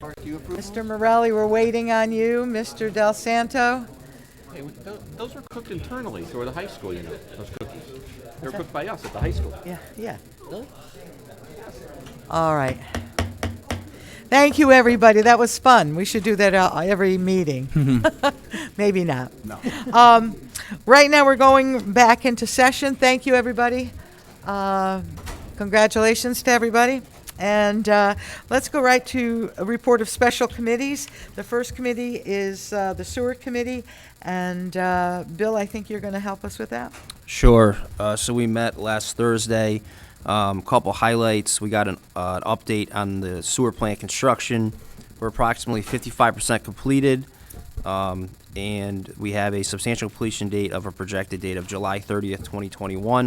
Mark, do you approve? Mr. Morelli, we're waiting on you. Mr. Del Santo? Hey, we- tho- Those were cooked internally through the high school, you know, those cookies. They were cooked by us at the high school. Yeah, yeah. All right. Thank you, everybody. That was fun. We should do that uh, every meeting. Maybe not. No. Um, right now, we're going back into session. Thank you, everybody. Uh, congratulations to everybody. And uh, let's go right to a report of special committees. The first committee is uh, the sewer committee. And uh, Bill, I think you're going to help us with that. Sure. Uh, so we met last Thursday. Um, couple highlights. We got an, uh, an update on the sewer plant construction. We're approximately 55% completed, um, and we have a substantial completion date of a projected date of July 30th, 2021.